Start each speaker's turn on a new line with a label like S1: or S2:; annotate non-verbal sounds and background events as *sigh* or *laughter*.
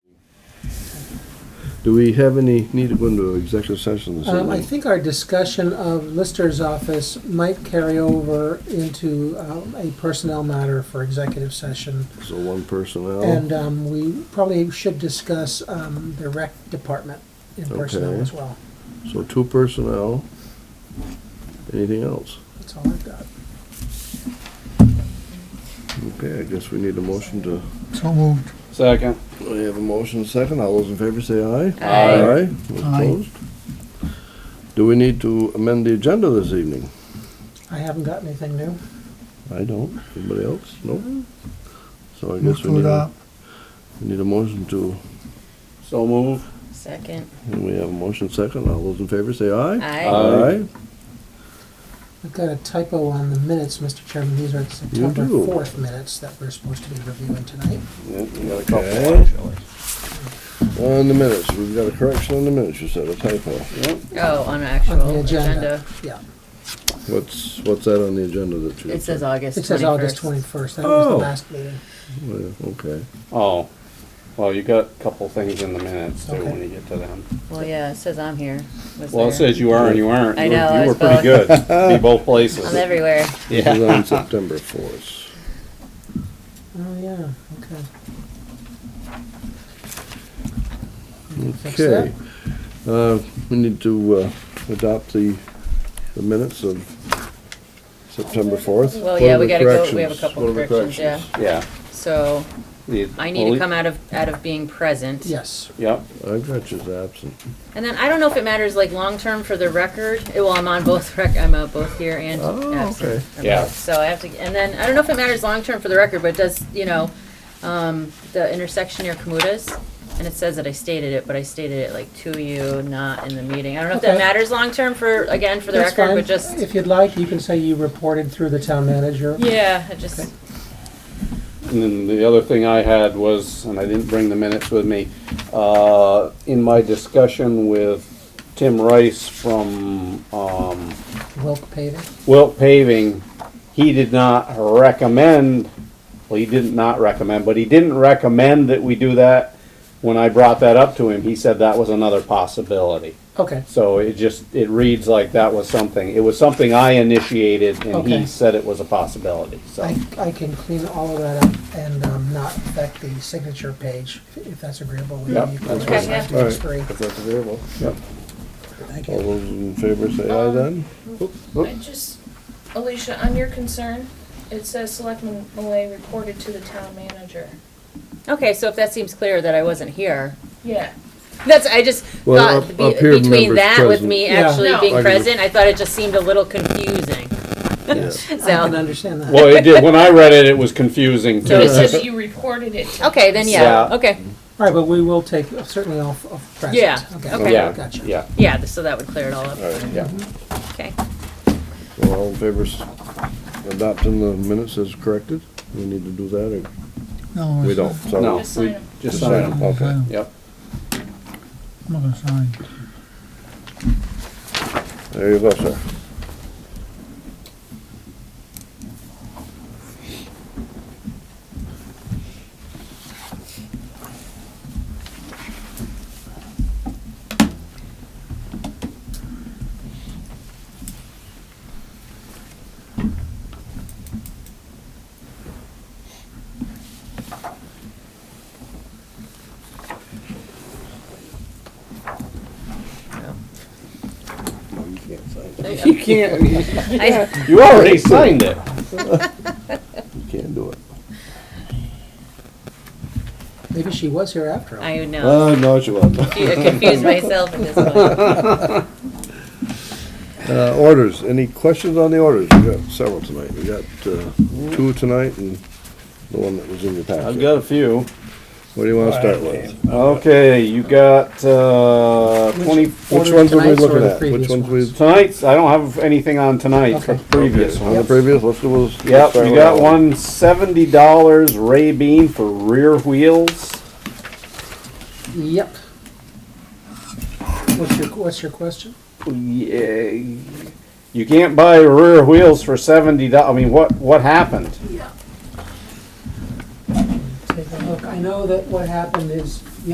S1: Do we have any need to go into executive session this
S2: Um, I
S1: evening?
S2: think our discussion of Lister's office might carry over into um, a personnel matter for executive session.
S1: So one personnel,
S2: And um, we probably should discuss um, the rec department in personnel
S1: Okay.
S2: as well.
S1: so two personnel. Anything else?
S2: That's all I've got.
S1: Okay, I guess we need a motion to,
S3: So moved.
S4: Second.
S1: we have a motion second. All those in favor say aye.
S4: Aye.
S1: Aye. Those
S3: Aye.
S1: Opposed? Do we need to amend the agenda this evening?
S2: I haven't got anything new.
S1: I don't. Anybody else? No? So I
S3: Move
S1: guess we
S3: to
S1: need, a-
S3: adopt.
S1: we need a motion to,
S4: So move.
S5: Second.
S1: we have a motion second. All those in favor say aye.
S5: Aye.
S4: Aye.
S2: We've got a typo on the minutes, Mr. Chairman. These are September
S1: do.
S2: 4th minutes that we're supposed to be reviewing tonight.
S4: Yep, we got a
S1: Okay.
S4: couple, actually.
S1: On the minutes, we've got a correction on the minutes, you said, a typo.
S4: Yep.
S5: Oh, on actual agenda.
S2: Yeah.
S1: What's, what's that on the agenda that you?
S5: It says August 21st.
S2: It says August 21st. That was the
S1: Oh.
S2: last meeting.
S1: Yeah, Okay,
S4: Oh, well, you got a couple things in the minutes too when
S2: Okay.
S4: you get to them.
S5: Well, yeah, it says I'm here. Was
S4: Well, it
S5: there.
S4: says you are and you aren't.
S5: I
S4: You-
S5: know, I
S4: You were
S5: was
S4: pretty good. Be both places.
S5: I'm everywhere. *laughs*
S1: this is on September fourth.
S2: Oh, yeah, okay. Fix that.
S1: Okay, uh, we need to, uh, adopt the, the minutes of September fourth.
S5: Well, yeah, we gotta go, we have a couple corrections, yeah.
S4: Yeah.
S5: So
S4: The-
S5: I need to come out of, out of being present.
S2: Yes,
S4: Yep,
S1: I got you as absent.
S5: And then I don't know if it matters like long-term for the record. Eh, Well, I'm on both *laughs* rec, I'm uh, both here and
S1: Oh,
S5: absent.
S1: okay.
S5: I'm
S4: Yeah.
S5: both. So I have to, and then, I don't know if it matters long-term for the record, but it does, you know, um, the intersection near Kamuta's. And it says that I stated it, but I stated it like to you, not in the meeting. I don't know if that
S2: Okay.
S5: matters long-term for, again, for the
S2: that's
S5: record,
S2: fine.
S5: but just,
S2: If you'd like, you can say you reported through the town manager.
S5: yeah, it just,
S4: and then the other thing I had was, and I didn't bring the minutes with me, uh, in my discussion with Tim Rice from, um,
S2: Wilk paving.
S4: Wilt Paving, he did not recommend, well, he did not recommend, but he didn't recommend that we do that. When I brought that up to him, he said that was another possibility.
S2: Okay,
S4: So it just, it reads like that was something, it was something I initiated and he
S2: Okay.
S4: said it was a possibility, so.
S2: I, I can clean all of that up and um, not affect the signature page, if- if that's agreeable. with you.
S4: Yep,
S2: You can
S4: that's
S2: raise
S5: fine.
S2: that to
S1: All right.
S2: three.
S1: If that's available.
S4: Yep.
S2: Thank
S1: All
S2: you.
S1: those in favor say aye
S5: Um,
S1: then?
S6: I just, Alicia, on your concern, it says Selectman Malay reported to the town manager.
S5: okay, so if that seems clear that I wasn't here.
S6: Yeah,
S5: That's, I just
S1: Well,
S5: thought,
S1: up-
S5: be-
S1: up here,
S5: between
S1: members
S5: that with
S1: present.
S5: me
S2: Yeah.
S5: actually
S6: No. I
S5: being
S1: can-
S5: present, I thought it just seemed a little confusing,
S1: Yes.
S2: I can
S5: *laughs* so.
S2: understand that.
S4: Well, it did, when I read it, it was confusing
S5: So
S4: too.
S6: it
S5: it's
S6: says that you reported it to.
S5: Okay, then yeah,
S4: Yeah.
S5: okay,
S2: All right, but we will take certainly off of present.
S5: Yeah, okay.
S4: Yeah,
S2: Gotcha.
S4: yeah,
S5: yeah, th- so that would clear it all up,
S1: All right,
S4: yeah.
S5: okay.
S1: so all in favor s- adopting the minutes as corrected? We need to do that
S3: No,
S1: or?
S3: it's-
S1: Oh, We don't, so.
S4: No,
S6: Just sign
S4: we
S6: 'em.
S4: just signed them.
S1: Okay.
S3: I'm
S4: Yep,
S3: not gonna sign.
S1: There you go, sir.
S5: You can't.
S4: you already signed it.
S1: You can't do it.
S2: Maybe she was here after all.
S5: I would know,
S1: Uh, no, she wasn't.
S5: I
S1: *laughs*
S5: confused myself at this point.
S1: Uh, orders, any questions on the orders? We got several tonight. We got, uh, two tonight and the one that was in your packet.
S4: I've got a few.
S1: What do you wanna start with?
S4: Okay, you got, uh, twenty,
S1: Which
S2: Order
S1: ones are we
S2: tonight's or
S1: looking
S2: the
S1: at? Which
S2: previous
S1: ones
S2: ones?
S1: we?
S4: tonight's, I don't have anything on tonight, for
S2: Okay.
S4: previous
S1: On the
S4: one.
S1: previous, let's do those.
S4: Yep,
S1: start
S4: you
S1: with
S4: got
S1: that
S4: one seventy dollars Ray Bean for rear wheels.
S2: Yep. What's your, what's your question?
S4: Yeah, You can't buy rear wheels for seventy dollars. I mean, what, what happened?
S2: Take a look. I know that what happened is,